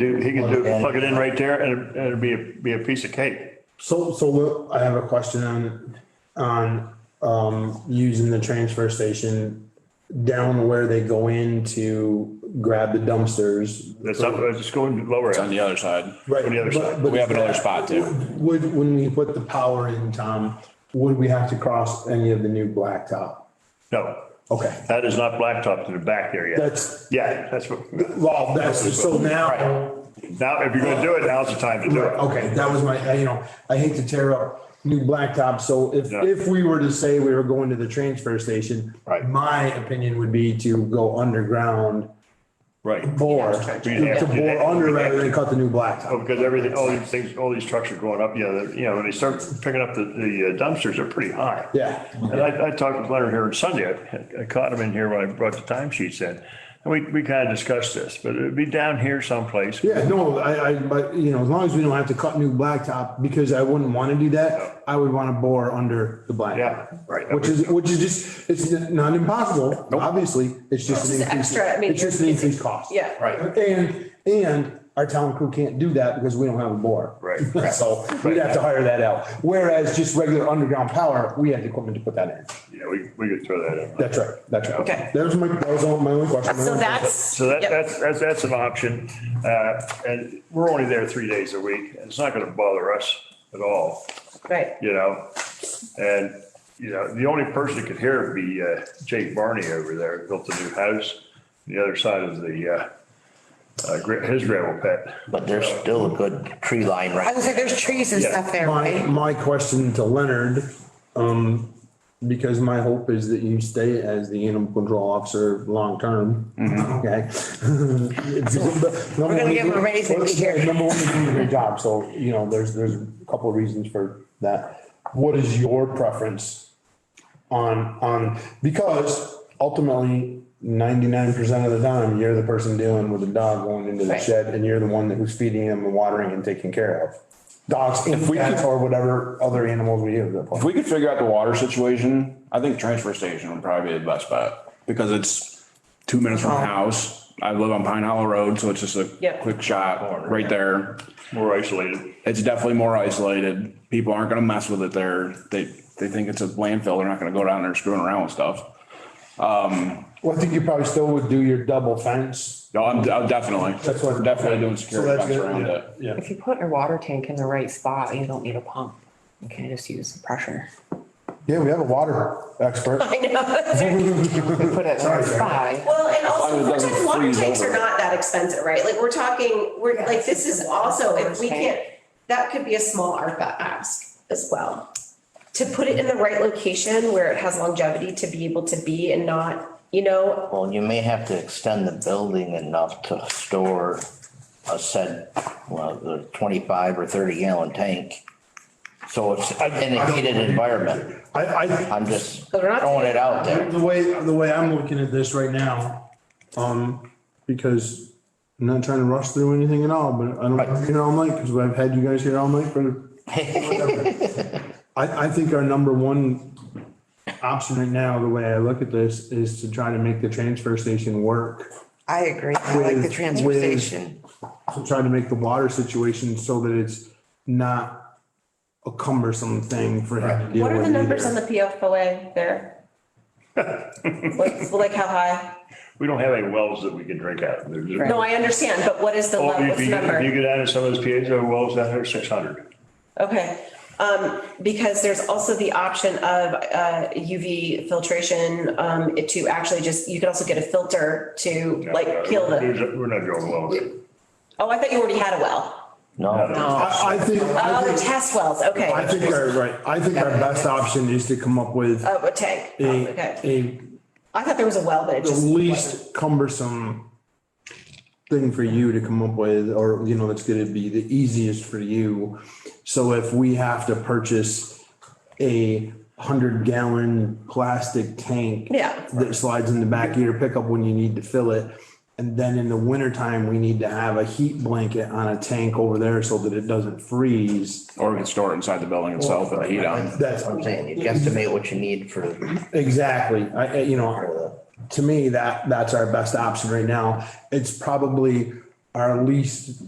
Do, he can do, plug it in right there and it- and it'd be, a- be a piece of cake. So, so what- I have a question on, on, um, using the transfer station down where they go in to grab the dumpsters. That's up, it's going lower. on the other side. Right, On the other side. but- but We have another that- spot too. Would, when we put the power in, Tom, would we have to cross any of the new blacktop? No, Okay, that is not blacktop to the back there yet. that's, Yeah, that's what, well, that's, so now, now, if you're gonna do it, now's the time to do it. okay, that was my, I, you know, I hate to tear up new blacktop, so if, Yeah. if we were to say we were going to the transfer station, Right. my opinion would be to go underground, Right. bore, We'd have to to do that. bore under rather than cut the new blacktop. Oh, because everything, all these things, all these trucks are going up, yeah, they're- you know, when they start picking up the, the dumpsters are pretty high. Yeah. And I, I talked with Leonard here on Sunday, I- I caught him in here when I brought the timesheets in. And we, we kind of discussed this, but it'd be down here someplace. Yeah, no, I, I, but you know, as long as we don't have to cut new blacktop, because I wouldn't want to do that, I would want to bore under the blacktop. Yeah, right. Which is, which is just, it's not impossible, obviously, it's just an It's increase. extra, I mean, It's just an it's- increased cost. yeah. Right. And, and our town crew can't do that because we don't have a bore. Right. So we'd have to hire that out, whereas just regular underground power, we had the equipment to put that in. Yeah, we, we could throw that in. That's right, that's right. Okay. That was my, that was all my only question. my So only that's. So that, yep. that's, that's, that's an option. Uh, and we're only there three days a week. It's not gonna bother us at all, Right. you know? And, you know, the only person that could hear would be uh, Jake Barney over there, built a new house, on the other side of the, uh, uh, gra- his gravel pit. But there's still a good tree line I right. was like, there's trees and Yeah. stuff there, My, right? my question to Leonard, um, because my hope is that you stay as the animal control officer long-term. Okay. We're We're gonna give him a raise if he's here. Number one, you're doing a good job, so, you know, there's, there's a couple of reasons for that. What is your preference on, on, because ultimately, ninety-nine percent of the time, you're the person dealing with the dog going into the Right. shed, and you're the one that who's feeding him and watering and taking care of. Dogs and we cats could- or whatever other animals we have. If we could figure out the water situation, I think transfer station would probably be the best bet because it's two minutes Oh. from my house. I live on Pine Hollow Road, so it's just a Yep. quick shot right there. More isolated. It's definitely more isolated. People aren't gonna mess with it there. They, they think it's a landfill. They're not gonna go down there screwing around with stuff. Well, I think you probably still would do your double fence. No, I'm, I'm definitely, That's what- definitely doing So security that's fence good, around yeah, it. Yeah. If you put your water tank in the right spot, you don't need a pump. You can just use the pressure. Yeah, we have a water expert. I know. You Put it in the right spot. Well, long and as also, it we're doesn't talking water freeze tanks are over. not that expensive, right? Like, we're talking, we're, like, this is also, if we tank. can't, that could be a small ARPA ask as well. To put it in the right location where it has longevity to be able to be and not, you know, Well, you may have to extend the building enough to store a said, well, the twenty-five or thirty gallon tank. So it's in a heated environment. I, I, I'm just But we're not- throwing it out there. the way, the way I'm looking at this right now, um, because I'm not trying to rush through anything at all, but I don't, Right. want to be here all night, because I've had you guys here all night for I, I think our number one option right now, the way I look at this, is to try to make the transfer station work. I agree. I like the With- transfer with- station. To try to make the water situation so that it's not a cumbersome thing for him to deal what with. are the numbers on either. the PFOA there? Like, like how high? We don't have any wells that we can drink out of. There's- No, I understand, but what is the Oh, level, if what's you, the if you number? get out of some of those piezo wells down there, six hundred. Okay, um, because there's also the option of, uh, UV filtration, um, it to actually just, you could also get a filter to like kill the, We're not drilling wells. oh, I thought you already had a well. No, I, I think, Oh, I the think, test wells, okay. I think our, right, I think our best option is to come up with Oh, a tank, a, okay. a I thought there was a well, but it the just. least cumbersome thing for you to come up with, or, you know, that's gonna be the easiest for you. So if we have to purchase a hundred gallon plastic tank. Yeah. That slides in the back of your pickup when you need to fill it. And then in the wintertime, we need to have a heat blanket on a tank over there so that it doesn't freeze. Or we can store it inside the building itself with the heat on. That's I'm saying, you guesstimate what you need for, Exactly. I, I- you know, to me, that, that's our best option right now. It's probably our least